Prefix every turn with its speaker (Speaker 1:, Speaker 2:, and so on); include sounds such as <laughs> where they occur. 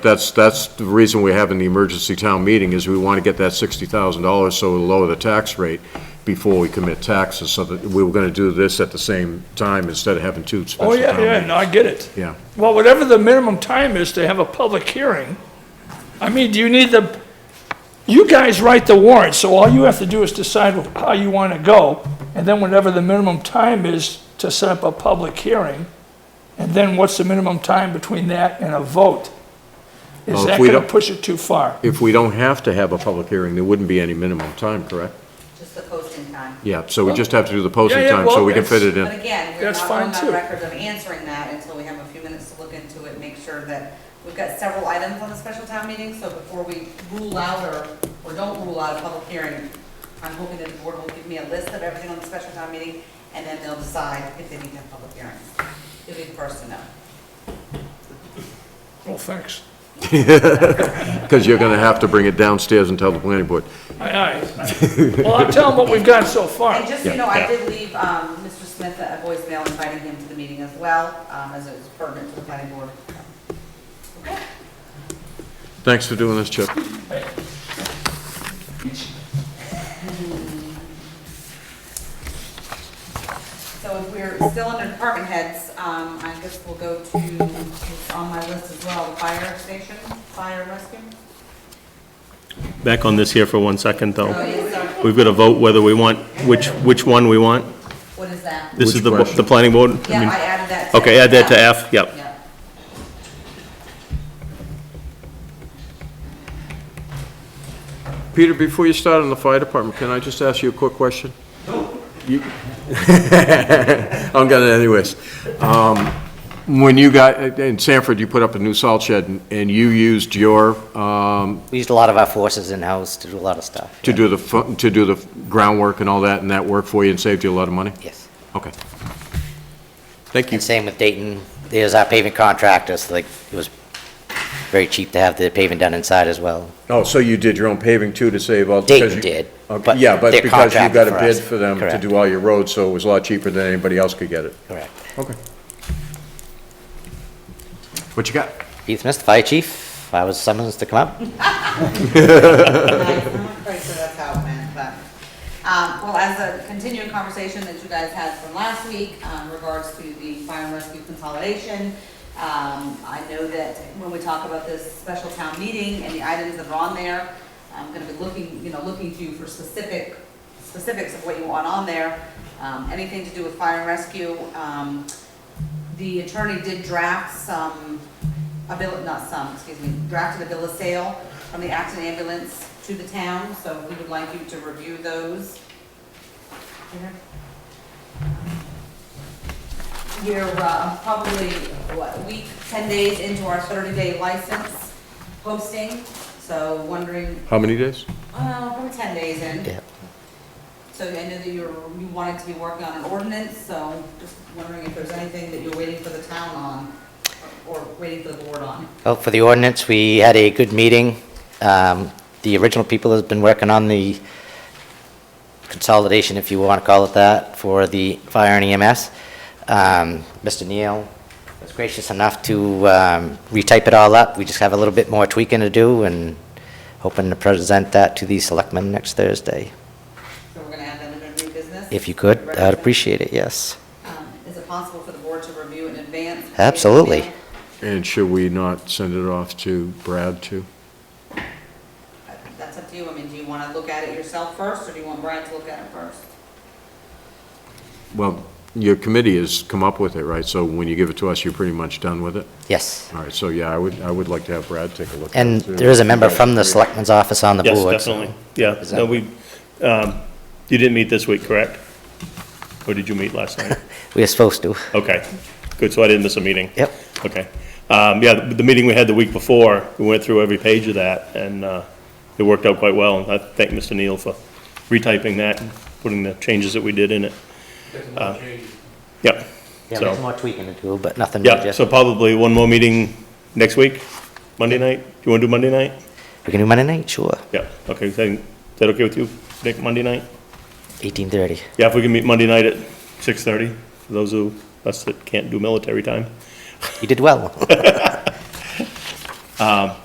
Speaker 1: That's, that's the reason we're having the emergency town meeting, is we want to get that sixty thousand dollars so it'll lower the tax rate before we commit taxes, so that we were gonna do this at the same time instead of having two
Speaker 2: Oh,
Speaker 1: special
Speaker 2: yeah,
Speaker 1: town
Speaker 2: yeah, no,
Speaker 1: meetings.
Speaker 2: I get it.
Speaker 1: Yeah.
Speaker 2: Well, whatever the minimum time is to have a public hearing, I mean, do you need the, you guys write the warrant, so all you have to do is decide how you want to go, and then whatever the minimum time is to set up a public hearing, and then what's the minimum time between that and a vote? Is
Speaker 1: Well, if
Speaker 2: that
Speaker 1: we
Speaker 2: going to
Speaker 1: don't-
Speaker 2: push it too far?
Speaker 1: If we don't have to have a public hearing, there wouldn't be any minimum time, correct?
Speaker 3: just the posting time.
Speaker 1: Yeah, so we just have to do the posting
Speaker 2: Yeah, yeah,
Speaker 1: time, so
Speaker 2: well,
Speaker 1: we can fit it
Speaker 3: But
Speaker 1: in.
Speaker 3: again, we're
Speaker 2: That's
Speaker 3: not
Speaker 2: fine,
Speaker 3: going
Speaker 2: too.
Speaker 3: on record of answering that until we have a few minutes to look into it, make sure that, we've got several items on the special town meeting, so before we rule out or, or don't rule out a public hearing, I'm hoping that the board will give me a list of everything on the special town meeting, and then they'll decide if they need to have public hearings. You'll be the first to know.
Speaker 2: Well, thanks.
Speaker 1: Because you're gonna have to bring it downstairs and tell the planning board.
Speaker 2: Aye, aye. Well, I'll tell them what we've got so
Speaker 3: And
Speaker 2: far.
Speaker 3: just, so you
Speaker 1: Yeah,
Speaker 3: know, I
Speaker 1: yeah.
Speaker 3: did leave, um, Mr. Smith a voicemail inviting him to the meeting as well, um, as it was pertinent to the planning board.
Speaker 1: Thanks for doing this, Chip.
Speaker 3: So if we're still under department heads, um, I guess we'll go to, it's on my list as well, fire station, fire rescue.
Speaker 4: Back on this here for one second,
Speaker 3: Oh,
Speaker 4: though.
Speaker 3: yes, sorry.
Speaker 4: We've got to vote whether we want, which, which one we want.
Speaker 3: What is that?
Speaker 4: This
Speaker 1: Which
Speaker 4: is the,
Speaker 1: question?
Speaker 4: the planning board? I
Speaker 3: Yeah,
Speaker 4: mean-
Speaker 3: I added that. to-
Speaker 4: Okay, add that to F, yep.
Speaker 3: Yeah.
Speaker 1: Peter, before you start on the fire department, can I just ask you a quick question? You- <laughs> I'm gonna anyways. Um, When you got, in Sanford, you put up a new salt shed, and- and you used your, um,
Speaker 5: We used a lot of our forces in-house to do a lot of stuff.
Speaker 1: to
Speaker 5: yeah.
Speaker 1: do the, fu- to do the groundwork and all that, and that worked for you and saved you a lot of money?
Speaker 5: Yes.
Speaker 1: Okay. Thank you.
Speaker 5: And same with Dayton. There's our pavement contractors, like, it was very cheap to have the pavement done inside as well.
Speaker 1: Oh, so you did your own paving too to save all?
Speaker 5: Dayton
Speaker 1: because you-
Speaker 5: did,
Speaker 1: Okay,
Speaker 5: but
Speaker 1: Yeah, but
Speaker 5: they're
Speaker 1: because you got a
Speaker 5: contracted for
Speaker 1: bid
Speaker 5: us.
Speaker 1: for them to
Speaker 5: Correct.
Speaker 1: do all your roads, so it was a lot cheaper than anybody else could get it.
Speaker 5: Correct.
Speaker 1: Okay. What you got?
Speaker 5: Keith Smith, the Fire Chief, I was summoned to come up.
Speaker 3: I'm not quite sure that's how it went, but, um, well, as a continuing conversation that you guys had from last week, um, regards to the fire and rescue consolidation, um, I know that when we talk about this special town meeting and the items that are on there, I'm gonna be looking, you know, looking to you for specific, specifics of what you want on there, um, anything to do with fire and rescue, um, the attorney did draft some, a bill, not some, excuse me, drafted a bill of sale from the Acton ambulance to the town, so we would like you to review those. We're uh, probably, what, a week, 10 days into our 30-day license posting, so wondering,
Speaker 1: How many days?
Speaker 3: oh, probably 10 days in.
Speaker 5: Yeah.
Speaker 3: So I know that you were, you wanted to be working on an ordinance, so just wondering if there's anything that you're waiting for the town on, or or waiting for the board on.
Speaker 5: Well, for the ordinance, we had a good meeting. Um, The original people has been working on the consolidation, if you want to call it that, for the fire and EMS. Um, Mr. Neal was gracious enough to um, retype it all up. We just have a little bit more tweaking to do and hoping to present that to the selectmen next Thursday.
Speaker 3: So we're gonna add that into new business?
Speaker 5: If you could, I'd appreciate it, yes.
Speaker 3: Um, Is it possible for the board to review in advance?
Speaker 5: Absolutely.
Speaker 1: And should we not send it off to Brad too?
Speaker 3: That's up to you. I mean, do you wanna look at it yourself first, or do you want Brad to look at it first?
Speaker 1: Well, your committee has come up with it, right? So when you give it to us, you're pretty much done with it?
Speaker 5: Yes.
Speaker 1: All right, so yeah, I would, I would like to have Brad take a look. at it,
Speaker 5: And
Speaker 1: too.
Speaker 5: there is a member from the selectmen's office on the
Speaker 4: Yes,
Speaker 5: board. so-
Speaker 4: definitely, yeah.
Speaker 5: Oh, Is
Speaker 4: No,
Speaker 5: that-
Speaker 4: we, um, you didn't meet this week, correct? Or did you meet last
Speaker 5: <laughs>
Speaker 4: night?
Speaker 5: We are supposed to.
Speaker 4: Okay, good, so I didn't miss a meeting.
Speaker 5: Yep.
Speaker 4: Okay. Um, yeah, the, the meeting we had the week before, we went through every page of that, and, uh, it worked out quite well. I thank Mr. Neal for retyping that and putting the changes that we did in it. Uh, Yep.
Speaker 5: Yeah,
Speaker 4: So-
Speaker 5: there's more tweaking to do, but nothing
Speaker 4: Yeah,
Speaker 5: major.
Speaker 4: so probably one more meeting next week, Monday night? Do you want to do Monday night?
Speaker 5: We can do Monday night, sure,
Speaker 4: Yeah, okay, is that is that okay with you, Nick, Monday night?
Speaker 5: 18:30.
Speaker 4: Yeah, if we can meet Monday night at 6:30, for those who, us that can't do military time.
Speaker 5: You did well.
Speaker 4: Um,